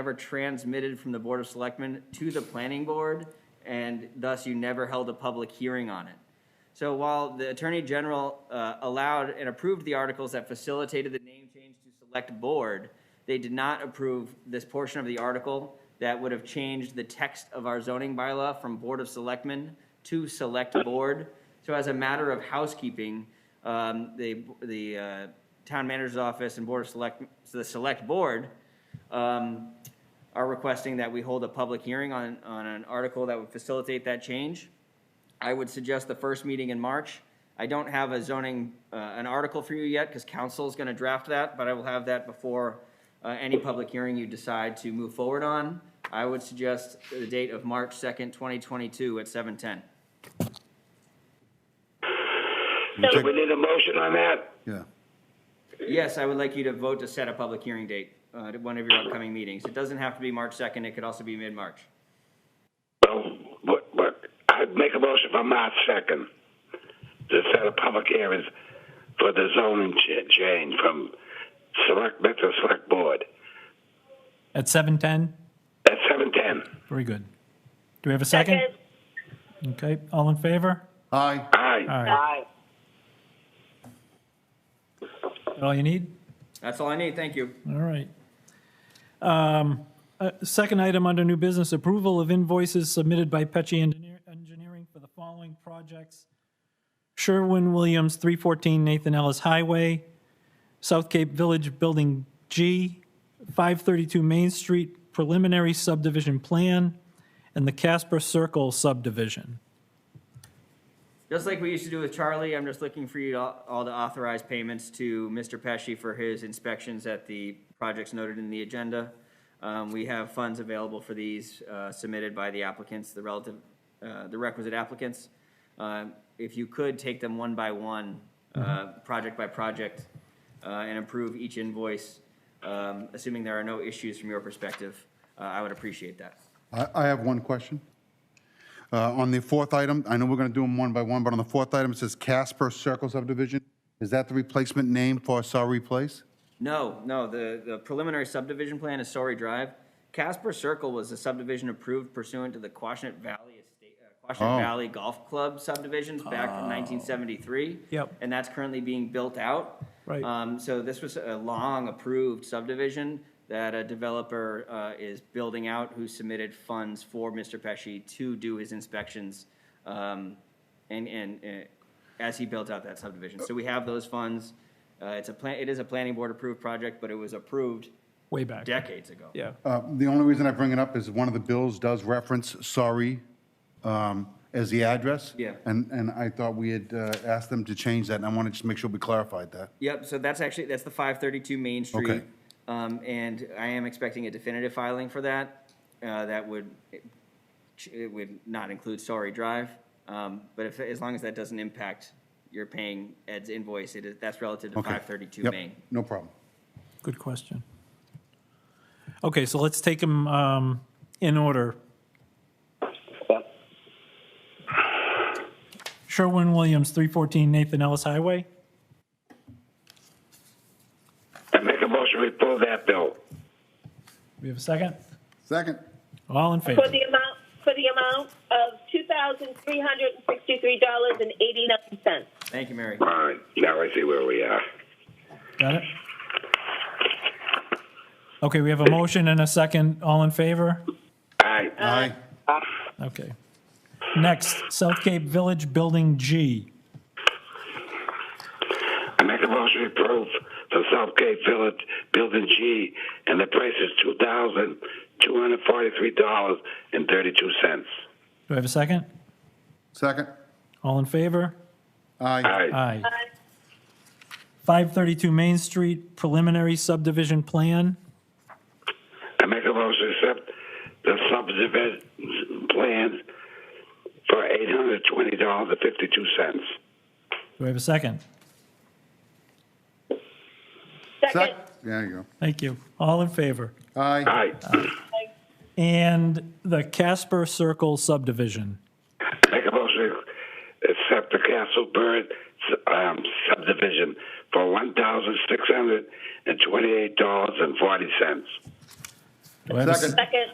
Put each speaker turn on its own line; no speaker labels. never transmitted from the Board of Selectmen to the Planning Board, and thus you never held a public hearing on it. So while the Attorney General uh, allowed and approved the articles that facilitated the name change to Select Board, they did not approve this portion of the article that would have changed the text of our zoning bylaw from Board of Selectmen to Select Board. So as a matter of housekeeping, um, the, the uh, Town Manager's Office and Board of Select, the Select Board um, are requesting that we hold a public hearing on, on an article that would facilitate that change. I would suggest the first meeting in March. I don't have a zoning, uh, an article for you yet, because council's gonna draft that, but I will have that before, uh, any public hearing you decide to move forward on. I would suggest the date of March second, twenty twenty-two at seven ten.
So we need a motion on that?
Yeah,
Yes, I would like you to vote to set a public hearing date, uh, at one of your upcoming meetings. It doesn't have to be March second, it could also be mid-March.
Well, what, what, I'd make a motion for March second to set a public hearing for the zoning cha- change from select, Metro Select Board
At 7:10?
at seven ten.
Very good. Do we have a second? Okay, all in favor?
aye,
Aye.
All right. Is that All you need?
That's all I need, thank you.
All right. Um, uh, Second item under new business, approval of invoices submitted by Petchy Engineer- Engineering for the following projects. Sherwin-Williams, 314 Nathan Ellis Highway, South Cape Village Building G, 532 Main Street Preliminary Subdivision Plan, and the Casper Circle Subdivision.
Just like we used to do with Charlie, I'm just looking for you to, all to authorize payments to Mr. Pesci for his inspections at the projects noted in the agenda. Um, we have funds available for these, uh, submitted by the applicants, the relative, uh, the requisite applicants. Um if you could take them one by one, uh, project by project, uh, and approve each invoice, um, assuming there are no issues from your perspective, uh, I would appreciate that.
I, I have one question. Uh, On the fourth item, I know we're going to do them one by one, but on the fourth item, it says Casper Circle subdivision. Is that the replacement name for Sorry Place?
No, no, the, the preliminary subdivision plan is Sorry Drive. Casper Circle was a subdivision approved pursuant to the Quashnet Valley Estate, uh, Quashnet
Oh.
Valley Golf Club subdivisions back in nineteen seventy-three.
Yep.
And that's currently being built out.
Right.
Um, so this was a long approved subdivision that a developer, uh, is building out who submitted funds for Mr. Pesci to do his inspections, um, and, and, uh, as he built out that subdivision. So we have those funds. Uh, it's a plan, it is a planning board approved project, but it was approved
Way back.
decades ago.
Yeah.
Uh, The only reason I bring it up is one of the bills does reference Sorry um, as the address.
Yeah.
And, and I thought we had uh, asked them to change that, and I wanted to just make sure we clarified that.
Yep, so that's actually, that's the five thirty-two Main Street.
Okay.
Um, and I am expecting a definitive filing for that, uh, that would, it would not include Sorry Drive. Um, but if, as long as that doesn't impact your paying Ed's invoice, it is, that's relative to
Okay.
five thirty-two
Yep,
Main.
No problem.
Good question. Okay, so let's take them um, in order. Sherwin Williams, 314 Nathan Ellis Highway.
I make a motion, we pull that bill.
We have a second?
Second.
All in favor?
For the amount, for the amount of two thousand three hundred and sixty-three dollars and eighty-nine cents.
Thank you, Mary.
All right, now I see where we are.
Got it? Okay, we have a motion and a second. All in favor?
Aye.
Aye.
Okay. Next, South Cape Village Building G.
I make a motion, we approve for South Cape Village, Building G, and the price is two thousand two hundred forty-three dollars and thirty-two cents.
Do I have a second?
Second.
All in favor?
Aye.
Aye.
Aye. 532 Main Street Preliminary Subdivision Plan.
I make a motion to accept the subdivision plans for eight hundred twenty dollars and fifty-two cents.
Do I have a second?
Second,
Sec- There you
Thank you. All in favor?
go. Aye.
Aye.
And the Casper Circle subdivision.
Make a motion to accept the Castle Bird um, subdivision for one thousand six hundred and twenty-eight dollars and forty cents.
Do I have a s-
Second.
Second.